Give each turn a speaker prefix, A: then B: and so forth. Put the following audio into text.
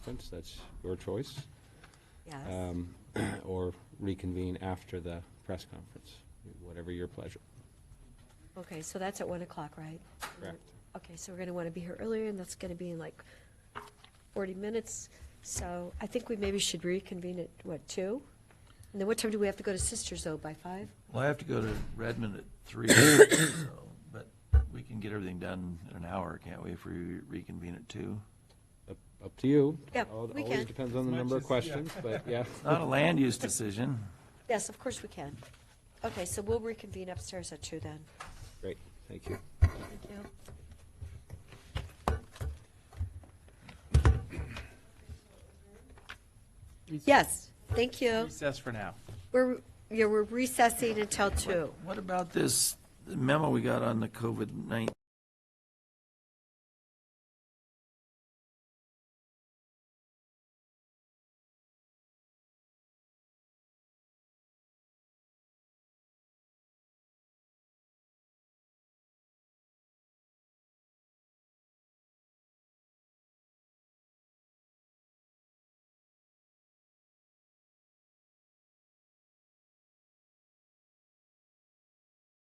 A: conference, that's your choice,
B: Yes.
A: um, or reconvene after the press conference, whatever your pleasure.
B: Okay, so that's at 1 o'clock, right?
A: Correct.
B: Okay, so we're going to want to be here earlier, and that's going to be in like 40 minutes. So I think we maybe should reconvene at, what, 2? And then what time do we have to go to Sisters, though, by 5?
C: Well, I have to go to Redmond at three, so, but we can get everything done in an hour, can't we, if we reconvene at two?
A: Up- Up to you.
B: Yeah,
A: Al-
B: we
A: Always
B: can.
A: depends on the
D: As
A: number of
D: much as- yeah.
A: questions, but yeah.
C: Not a land use decision.
B: Yes, of course we can. Okay, so we'll reconvene upstairs at 2 then.
A: Great, thank you.
B: Thank you. Yes, thank you.
D: Recess for now.
B: We're, yeah, we're recessing until 2.
C: What about this memo we got on the COVID-19